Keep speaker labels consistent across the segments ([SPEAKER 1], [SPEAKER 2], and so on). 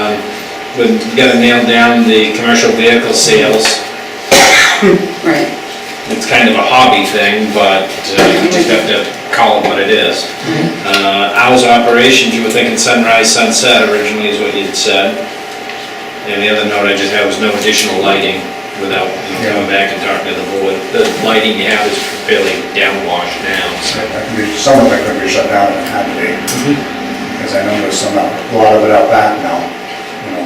[SPEAKER 1] we've Um, gotta nail down the commercial vehicle sales.
[SPEAKER 2] Right,
[SPEAKER 1] It's kind of a hobby thing, but uh, you just have to call it what it is. Uh, Hours of operations, you were thinking sunrise, sunset originally is what you'd said. And the other note I just had was no additional lighting without you know, coming back and talking to the board. The lighting you have is fairly downwash now, so.
[SPEAKER 3] That could be, some of it could be shut down at half a day.
[SPEAKER 4] Mm-hmm.
[SPEAKER 3] Because I know there's some, out- a lot of it out back now, you know.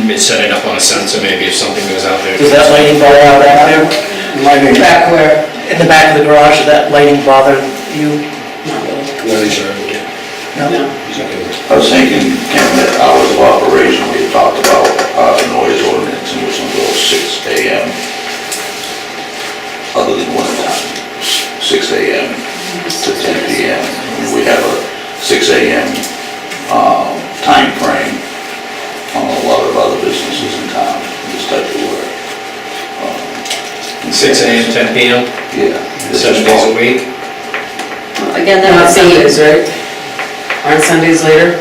[SPEAKER 1] You may set it up on a sensor maybe if something goes out there.
[SPEAKER 5] Does that lighting bother out back there?
[SPEAKER 3] Lighting,
[SPEAKER 2] back where,
[SPEAKER 5] In the back of the garage, does that lighting bother you?
[SPEAKER 2] not really,
[SPEAKER 5] No?
[SPEAKER 2] no.
[SPEAKER 6] I was thinking, Ken, that hours of operation, we talked about, uh, noise ordinance, and it was until six AM. Other than one time, six AM to ten PM. And We have a six AM, um, timeframe on a lot of other businesses in town, this type of work. Um,
[SPEAKER 1] Six AM, ten PM,
[SPEAKER 6] Yeah. This
[SPEAKER 1] seven
[SPEAKER 6] is
[SPEAKER 1] days
[SPEAKER 6] all-
[SPEAKER 1] a week.
[SPEAKER 2] Well, Again, that
[SPEAKER 7] On
[SPEAKER 2] would
[SPEAKER 7] Sundays,
[SPEAKER 2] be,
[SPEAKER 7] right? On Sundays later?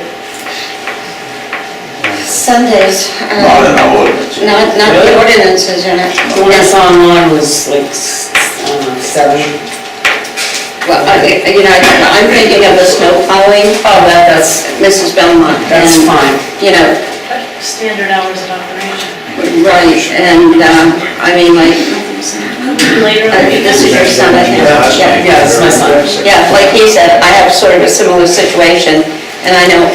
[SPEAKER 2] Sundays
[SPEAKER 6] Not
[SPEAKER 2] are,
[SPEAKER 6] in our ordinance.
[SPEAKER 2] not, not the
[SPEAKER 7] Really?
[SPEAKER 2] ordinances, are not,
[SPEAKER 7] The one I saw online was like, s- I don't know, seven.
[SPEAKER 2] well, I- you know, I'm thinking of the snow plowing,
[SPEAKER 7] Oh, that, that's,
[SPEAKER 2] Mrs. Belmont.
[SPEAKER 7] that's
[SPEAKER 2] and,
[SPEAKER 7] fine.
[SPEAKER 2] You know,
[SPEAKER 8] standard hours of operation.
[SPEAKER 2] Right, and, um, I mean, like,
[SPEAKER 8] Later,
[SPEAKER 2] uh, this is your son, I think, yeah.
[SPEAKER 7] Yeah, it's my son.
[SPEAKER 2] Yeah, like he said, I have sort of a similar situation, and I know,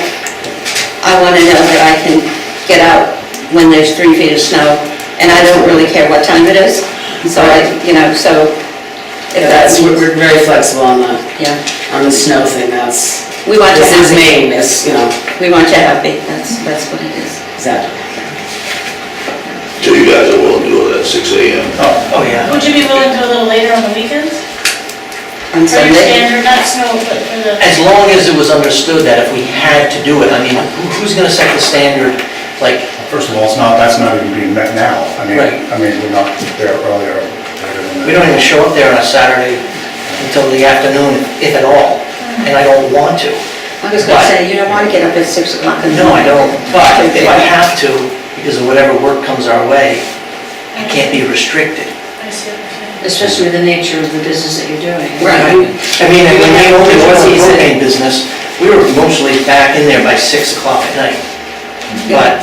[SPEAKER 2] I wanna know that I can get out when there's three feet of snow, and I don't really care what time it is, so I, you know, so, if
[SPEAKER 7] Yeah,
[SPEAKER 2] that's,
[SPEAKER 7] That's, we're we're very flexible on the,
[SPEAKER 2] yeah.
[SPEAKER 7] on the snow thing, that's,
[SPEAKER 2] We want you
[SPEAKER 7] this is
[SPEAKER 2] happy,
[SPEAKER 7] Maine, it's, you know,
[SPEAKER 2] we want you happy, that's, that's what it is.
[SPEAKER 7] exactly.
[SPEAKER 6] So you guys are willing to do it at six AM?
[SPEAKER 5] Oh, yeah.
[SPEAKER 8] would you be willing to go a little later on the weekends?
[SPEAKER 2] On
[SPEAKER 8] For your
[SPEAKER 2] Sunday,
[SPEAKER 8] standard, not snow, but for the,
[SPEAKER 5] As long as it was understood that if we had to do it, I mean, who- who's gonna set the standard, like,
[SPEAKER 3] First of all, it's not, that's not even being met now. I mean,
[SPEAKER 5] Right.
[SPEAKER 3] I mean, we're not there earlier. later than that.
[SPEAKER 5] we don't even show up there on a Saturday until the afternoon, if at all, and I don't want to.
[SPEAKER 7] Mm-hmm.
[SPEAKER 2] I was gonna say, you don't wanna get up at six o'clock in the
[SPEAKER 5] No, I
[SPEAKER 2] morning.
[SPEAKER 5] don't, but if I have to, because of whatever work comes our way, I can't be restricted.
[SPEAKER 8] I see what you're saying.
[SPEAKER 9] especially with the nature of the business that you're doing.
[SPEAKER 2] Right.
[SPEAKER 5] I mean, when we owned the oil and propane business, we were mostly back in there by six o'clock at night. But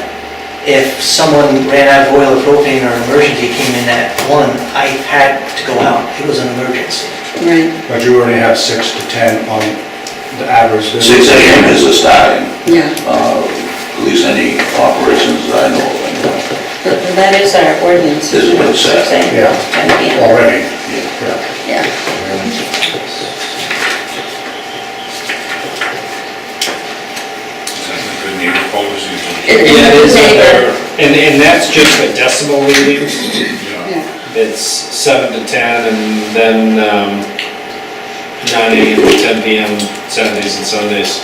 [SPEAKER 5] if someone ran out of oil or propane or an emergency came in at one, I had to go out. It was an emergency.
[SPEAKER 2] Right,
[SPEAKER 3] But you already have six to 10 on the average.
[SPEAKER 6] Six AM is the starting.
[SPEAKER 2] yeah.
[SPEAKER 6] uh, at least any operations that I know of. anyway.
[SPEAKER 2] That is our ordinance.
[SPEAKER 6] This is what it says.
[SPEAKER 2] Saying,
[SPEAKER 3] Yeah.
[SPEAKER 2] and again,
[SPEAKER 3] Already.
[SPEAKER 2] yeah.
[SPEAKER 1] Yeah, it is up there,
[SPEAKER 2] Neighbor.
[SPEAKER 1] and, and that's just for decibel readings.
[SPEAKER 2] Yeah.
[SPEAKER 1] It's seven to ten, and then, um, nine AM to ten PM, Saturdays and Sundays.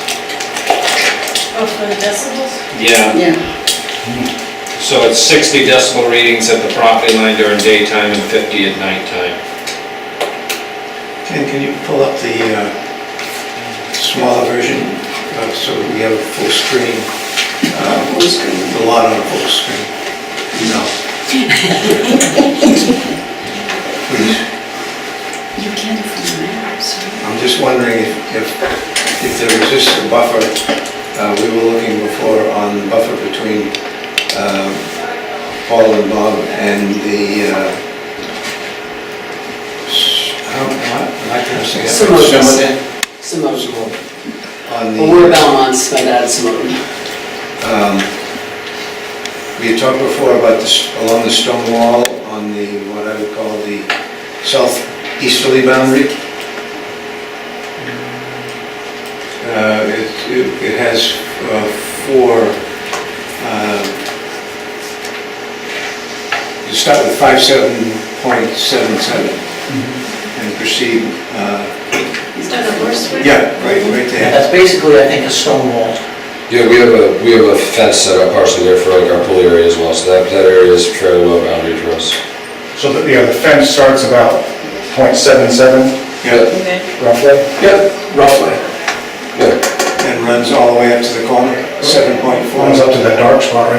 [SPEAKER 8] oh, for the decibels?
[SPEAKER 1] Yeah,
[SPEAKER 2] Yeah,
[SPEAKER 1] so it's sixty decibel readings at the property line during daytime and fifty at nighttime.
[SPEAKER 4] Ken, can you pull up the uh, smaller version, uh, so we have a full screen? uh,
[SPEAKER 2] full screen.
[SPEAKER 4] The lot on a full screen? No. Please,
[SPEAKER 9] You can from the map, so.
[SPEAKER 4] I'm just wondering if, if if there exists a buffer, uh, we were looking before on the buffer between um, Paul and Bob and the, uh, s- I don't, am I pronouncing that?
[SPEAKER 7] Some of us.
[SPEAKER 4] Somerset?
[SPEAKER 7] Samoan.
[SPEAKER 4] On the.
[SPEAKER 7] Well, we're Belmonts, my dad's Samoan.
[SPEAKER 4] Um, We had talked before about this, along the stone wall on the, what I would call the southeasterly boundary. Uh, It it- it has uh, four, uh, you start with 57.77 and proceed, uh,
[SPEAKER 8] Is that a worse way?
[SPEAKER 4] yeah, right, right
[SPEAKER 5] And
[SPEAKER 4] there.
[SPEAKER 5] that's basically, I think, a stone wall.
[SPEAKER 10] Yeah, we have a, we have a fence set up partially there for like our pool area as well, so that, that area is fairly well boundary for us.
[SPEAKER 3] So the, yeah, the fence starts about .77
[SPEAKER 4] Yeah,
[SPEAKER 3] roughly.
[SPEAKER 10] Yeah, roughly. Yeah.
[SPEAKER 4] And runs all the way up to the corner, 7.4.
[SPEAKER 3] Runs up to that dark spot right